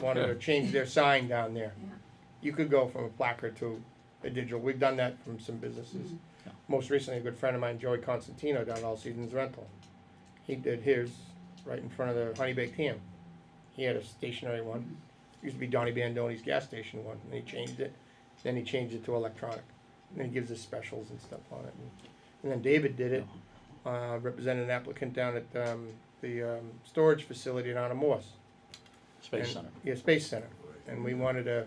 wanted to change their sign down there. You could go from a placard to a digital. We've done that from some businesses. Mm-hmm. Most recently, a good friend of mine, Joey Constantino, down at All Seasons Rental. He did his right in front of the Honey Baked Ham. He had a stationary one. Used to be Donnie Bandoni's gas station one, and he changed it. Then he changed it to electronic. And then he gives us specials and stuff on it. And then David did it, uh, represented an applicant down at, um, the, um, storage facility down in Morse. Space and- Center. Yeah, Space Center. And we wanted to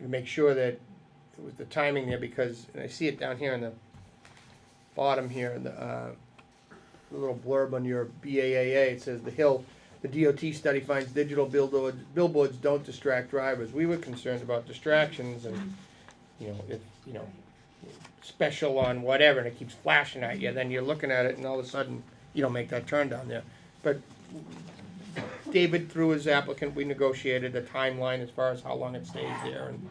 make sure that it was the timing there because, and I see it down here in the bottom here, the, uh, the little blurb on your BAAA, it says, "The Hill, the DOT study finds digital billboards, billboards don't distract drivers." We were concerned about distractions and, you know, if, you know, special on whatever and it keeps flashing at you, then you're looking at it and all of a sudden you don't make that turn down there. But David, through his applicant, we negotiated a timeline as far as how long it stays there and,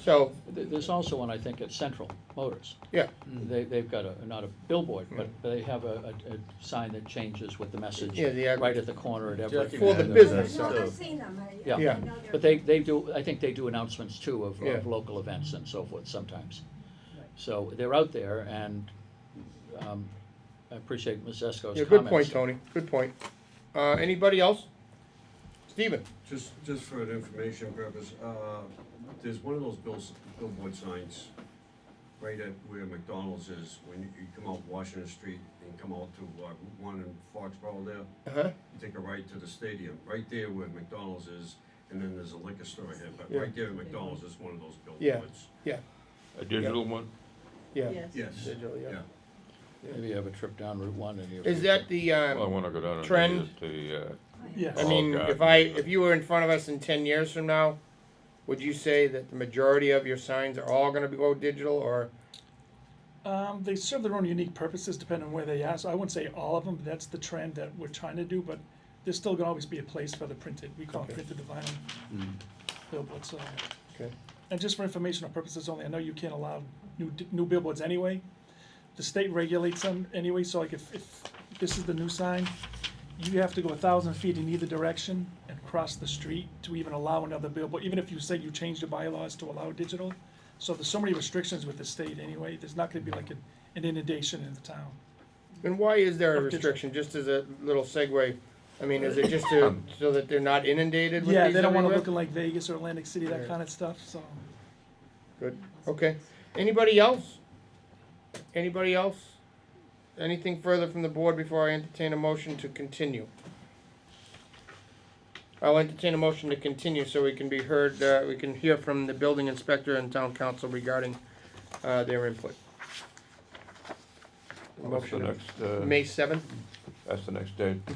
so, Th- There's also one, I think, at Central Motors. yeah, They, they've got a, not a billboard, but they have a, a, a sign that changes with the message Yeah, the ad- right at the corner at every. For the business. No, So- I've seen them, I- I, Yeah. know they're. But they, they do, I think they do announcements too of, Yeah. of local events and so forth sometimes. So they're out there and, um, I appreciate Ms. Esco's comments. yeah, good point, Tony, good point. Uh, anybody else? Steven? Just, just for an information purpose, uh, there's one of those bills, billboard signs right at where McDonald's is, when you, you come out Washington Street and come out to, uh, Route One in Foxborough there, Uh-huh. you take a right to the stadium, right there where McDonald's is, and then there's a liquor store here, but Yeah. right there at McDonald's is one of those Yeah. billboards. A digital one? Yeah. Yes, Digital, yeah. yeah. Maybe you have a trip down Route One and you. Is that the, Well, I um, wanna go down and Trend. visit the, uh, I Oh, mean, God. if I, if you were in front of us in ten years from now, would you say that the majority of your signs are all gonna be go digital, or, Um, they serve their own unique purposes depending on where they are. So I wouldn't say all of them. But that's the trend that we're trying to do, but there's still gonna always be a place for the printed. We call Okay. it printed the vinyl billboards. So. Okay. And just for informational purposes only, I know you can't allow new d- new billboards anyway. The state regulates them anyway. So like if, if this is the new sign, you have to go a thousand feet in either direction and cross the street to even allow another billboard. Even if you say you change the bylaws to allow digital, so there's so many restrictions with the state anyway, there's not gonna be like an an inundation in the town. and why is there a Of digital. restriction, just as a little segue? I mean, is it just to, so that they're not inundated with these Yeah, they don't wanna everywhere? look in like Vegas or Atlantic City, Yeah. that kinda stuff, so. Good, okay. Anybody else? Anybody else? Anything further from the board before I entertain a motion to continue? I'll entertain a motion to continue so we can be heard, uh, we can hear from the building inspector and town council regarding, uh, their input. what's the Motion, next, uh, May Mm-hmm. seventh, that's the next date? I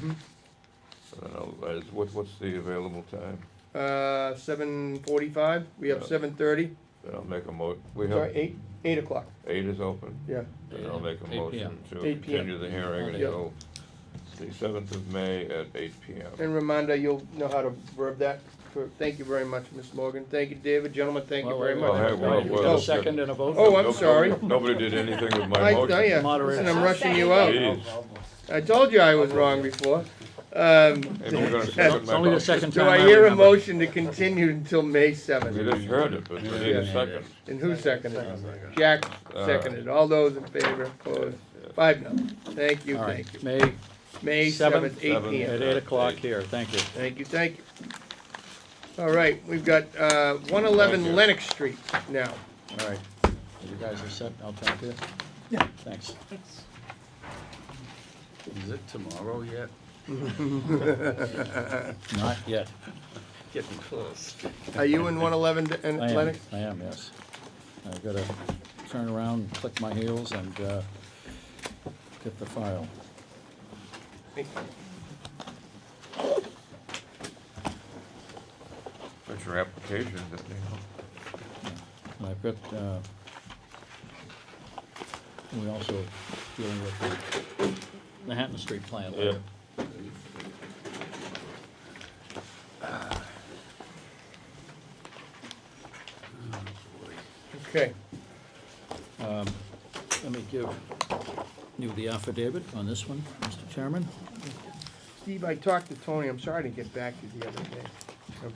don't know, is, what, what's the available time? uh, seven forty-five, we have Yeah. seven thirty, Then I'll make a mo, we sorry, have, eight, eight o'clock, eight is open? yeah. Then I'll make a 8 motion to 8 p.m. continue the hearing Yeah. until the seventh of May at eight P M. And Ramonda, you'll know how to verb that. For- Thank you very much, Ms. Morgan. Thank you, David. Gentlemen, thank you Well, very wait, much. wait, wait, wait. Thank you. Well, A well, Oh, second and a vote? Oh, I'm sorry. Nobody did anything with my Oh, I uh, tell motion. ya, Moderator. listen, I'm rushing you out. Jeez, I told you I was wrong before. Um, maybe we're gonna second It's my only the motion. second do time I I hear a remember. motion to continue until May We seventh? just heard it, but we need a Yeah. second. And who seconded? it? Jack All seconded. All those in favor, opposed? Five no. Thank you, All right, thank you. May May Seventh. seventh, eight Seventh. P M. at eight o'clock here, thank you. Thank you, thank you. All right, we've got, uh, one eleven Thank you. Lennox Street now. All right, you guys are set, I'll talk to you. Yeah. Thanks. Is it tomorrow yet? Not yet. Getting close. Are you in one eleven and I am, Lennox? I am, yes. I've gotta turn around, click my heels and, uh, get the file. Put your application, didn't you? And I've got, uh, we also dealing with the Manhattan Street plan. later. Okay. Let me give you the affidavit on this one, Mr. Chairman. Steve, I talked to Tony, I'm sorry to get back to you the other day.